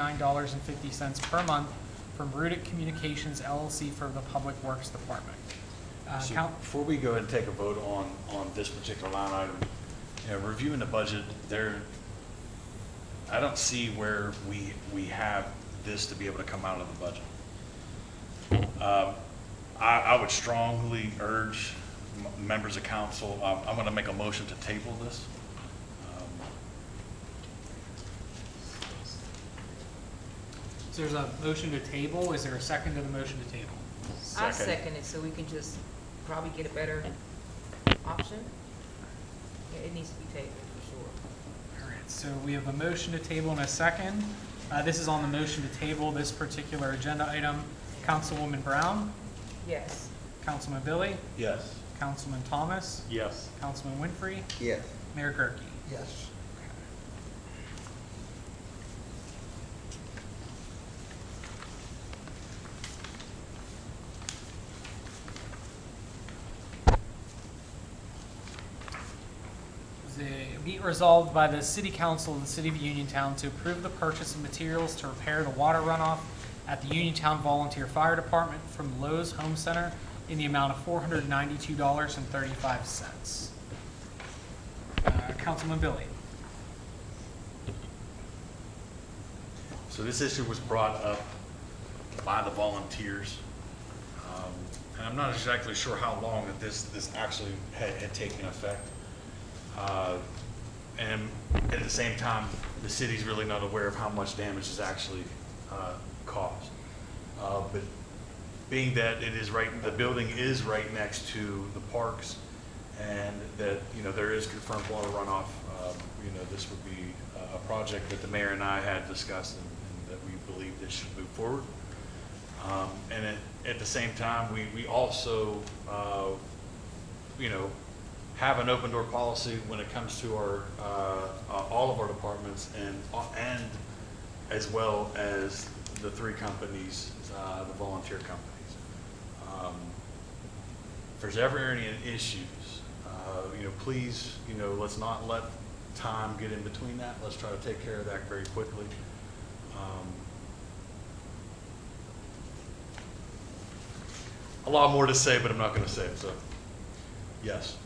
nine dollars and fifty cents per month from Rudic Communications LLC for the Public Works Department. Uh, So coun- Before we go ahead and take a vote on, on this particular line item, you know, reviewing the budget, there, I don't see where we, we have this to be able to come out of the budget. Um, I, I would strongly urge m- members of council, I'm, I'm going to make a motion to table this. So there's a motion to table, is there a second to the motion to table? I Second. second it, so we can just probably get a better option. Yeah, It needs to be tabled, for sure. All right, so we have a motion to table and a second. Uh, This is on the motion to table this particular agenda item. Councilwoman Brown, Yes, Councilman Billy, Yes. Councilman Thomas, Yes. Councilman Winfrey, Yes. Mayor Gurke. Yes. The- Be it resolved by the City Council of the City of Uniontown to approve the purchase of materials to repair the water runoff at the Uniontown Volunteer Fire Department from Lowe's Home Center in the amount of four hundred ninety-two dollars and thirty-five cents. Uh, Councilman Billy? So this issue was brought up by the volunteers. Um, And I'm not exactly sure how long that this, this actually had, had taken effect. Uh, And at the same time, the city's really not aware of how much damage is actually uh, caused. Uh, But being that it is right, the building is right next to the parks and that, you know, there is confirmed water runoff, um, you know, this would be a- a project that the mayor and I had discussed and and that we believe this should move forward. Um, And at, at the same time, we, we also, uh, you know, have an open door policy when it comes to our, uh, uh, all of our departments and, uh, and as well as the three companies, uh, the volunteer companies. Um, if there's ever any issues, uh, you know, please, you know, let's not let time get in between that. Let's try to take care of that very quickly. Um, A lot more to say, but I'm not going to say it, so, yes.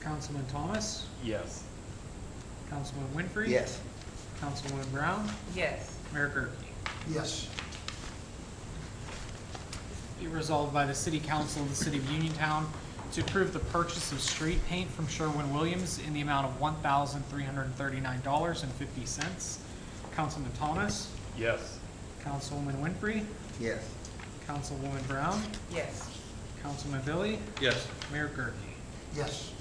Councilman Thomas? Yes. Councilman Winfrey? Yes. Councilwoman Brown? yes, Mayor Gurke? Yes. Be resolved by the City Council of the City of Uniontown to approve the purchase of street paint from Sherwin-Williams in the amount of one thousand three hundred and thirty-nine dollars and fifty cents. Councilman Thomas, Yes. Councilwoman Winfrey, Yes. Councilwoman Brown, yes. Councilman Billy, Yes. Mayor Gurke. Yes.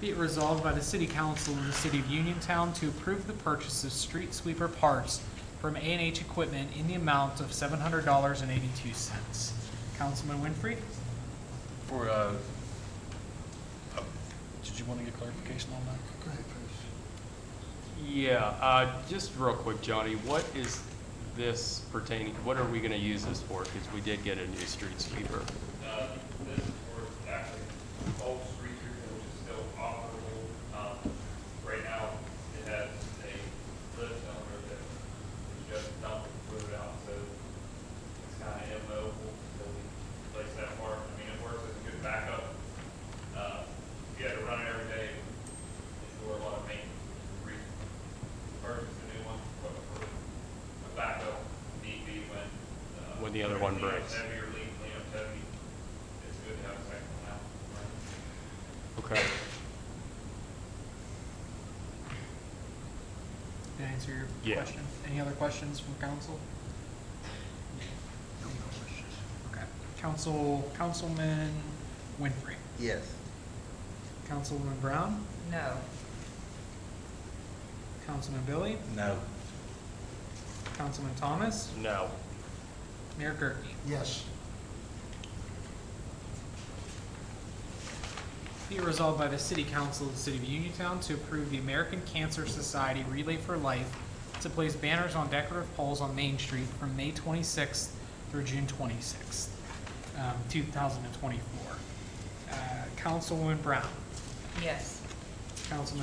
Be it resolved by the City Council of the City of Uniontown to approve the purchase of street sweeper parts from A and H Equipment in the amount of seven hundred dollars and eighty-two cents. Councilman Winfrey? For, uh, oh, did you want to get clarification on that? Go ahead, Bruce. Yeah, uh, just real quick, Johnny, what is this pertaining, what are we gonna use this for? Because we did get a new street sweeper. Uh, This is for actually old street treatment, which is still operable. Um, Right now, it has a lift owner that is just dumping fluid out, so it's kind of immobile until we replace that part. I mean, it works as a good backup. Uh, If you had to run it every day, it'd do a lot of maintenance, re, purchase a new one, but for a backup, need be when. uh, When the other one cleanup breaks. heavy or lean cleanup heavy, it's good to have a second one out. Okay. Did I answer your Yeah. question? Any other questions from council? Okay. Council, Councilman Winfrey, Yes. Councilwoman Brown, No, Councilman Billy, No. Councilman Thomas, No. Mayor Gurke. Yes. Be it resolved by the City Council of the City of Uniontown to approve the American Cancer Society Relay for Life to place banners on decorative poles on Main Street from May 26th through June 26th, um, 2024. Uh, Councilwoman Brown, yes, Councilman